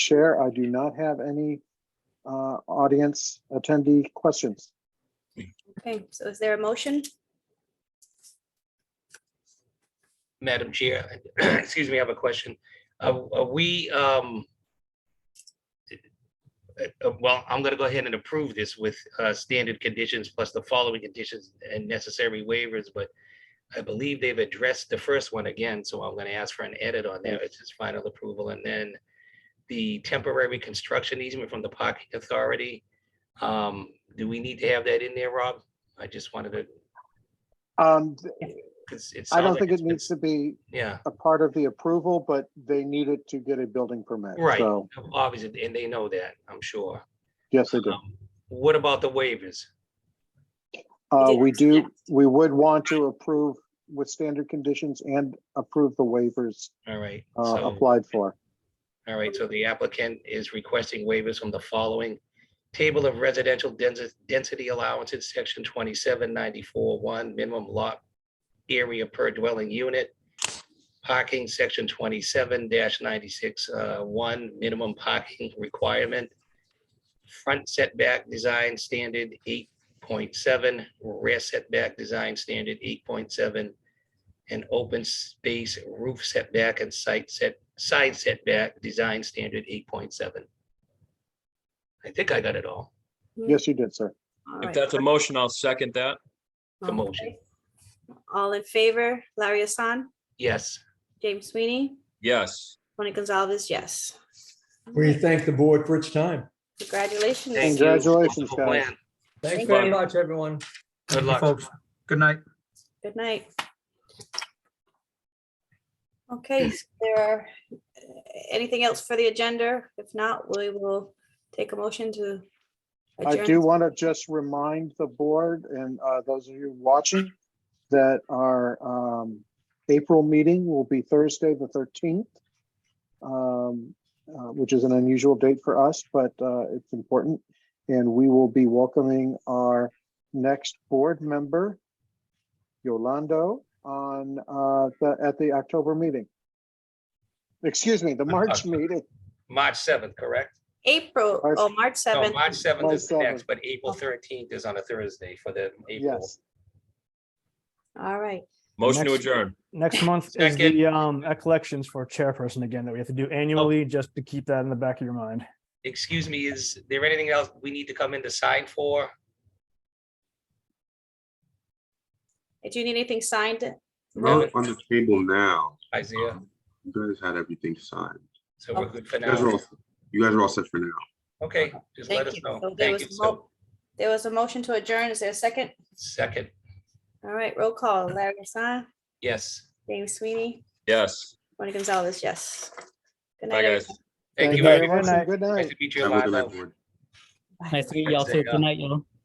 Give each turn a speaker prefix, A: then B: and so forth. A: Chair, I do not have any uh, audience attendee questions.
B: Okay, so is there a motion?
C: Madam Chair, excuse me, I have a question. Are are we, um, uh, uh, well, I'm gonna go ahead and approve this with uh, standard conditions plus the following conditions and necessary waivers, but I believe they've addressed the first one again, so I'm gonna ask for an edit on there. It's just final approval. And then the temporary construction easement from the parking authority. Um, Do we need to have that in there, Rob? I just wanted to,
A: Um,
C: because it
A: I
C: sounds
A: don't
C: like
A: think
C: it's
A: it
C: been-
A: needs to be
C: Yeah.
A: a part of the approval, but they need it to get a building permit.
C: Right.
A: So,
C: Obviously, and they know that, I'm sure.
A: yes, they do.
C: Um, What about the waivers?
A: Uh,
B: Yes,
A: We do,
B: yes.
A: we would want to approve with standard conditions and approve the waivers
C: All right,
A: uh,
C: so,
A: applied for.
C: all right, so the applicant is requesting waivers from the following. Table of residential densi- density allowances, section twenty-seven ninety-four one, minimum lot area per dwelling unit. Parking, section twenty-seven ninety-six uh, one, minimum parking requirement. Front setback design standard eight point seven, rear setback design standard eight point seven. and open space roof setback and site set, side setback, design standard eight point seven. I think I got it all,
A: Yes, you did, sir.
B: All
D: If
B: right.
D: that's a motion, I'll second that.
C: the motion.
B: Okay. All in favor, Larry Hassan,
C: yes.
B: James Sweeney,
D: Yes.
B: Tony Gonzalez, yes.
E: We thank the board for its time.
B: Congratulations.
C: Thank you.
A: Congratulations,
C: Wonderful
A: guys.
C: plan.
E: Thanks
B: Thank
E: very
C: you.
E: much, everyone.
C: Good luck.
E: Good night.
B: Good night. Okay, is there are, uh, anything else for the agenda? If not, we will take a motion to
A: I
B: adjourn.
A: do want to just remind the board and uh, those of you watching that our um, April meeting will be Thursday, the 13th, um, uh, which is an unusual date for us, but uh, it's important. And we will be welcoming our next board member, Yolando, on, uh, the- at the October meeting. Excuse me, the March
C: October.
A: meeting.
C: March seventh, correct?
B: April,
A: March-
B: oh, March
C: No,
B: 7th.
C: March seventh
A: March
C: is the
A: 7th.
C: next, but April thirteenth is on a Thursday for the April.
A: Yes,
B: All right.
D: Motion to
F: Next.
D: adjourn.
F: Next month is
C: Second.
F: the um collections for chairperson again that we have to do
C: Oh.
F: annually, just to keep that in the back of your mind.
C: Excuse me, is there anything else we need to come in to sign for?
B: Do you need anything signed?
G: Well,
C: Really?
G: it's on the table now.
C: Isaiah,
G: You guys had everything signed.
C: so we're good for
G: You guys are
C: now.
G: all, you guys are all set for now.
C: Okay, just let
B: Thank
C: us
B: you.
C: know.
B: So there
C: Thank
B: was
C: you.
B: a
C: So,
B: mo- There was a motion to adjourn. Is there a second?
C: second,
B: All right, roll call. Larry Hassan,
C: yes.
B: James Sweeney,
D: Yes.
B: Tony Gonzalez, yes. Good
D: Bye,
B: night.
D: guys.
C: Thank you
A: very
C: very
A: much.
F: everyone.
C: much.
A: and Good night.
C: Nice to meet you.
G: Have a good night,
C: Lionel.
G: board.
B: everyone.
H: Nice to meet y'all
C: Wednesday,
H: too.
C: yeah.
H: Good night, y'all.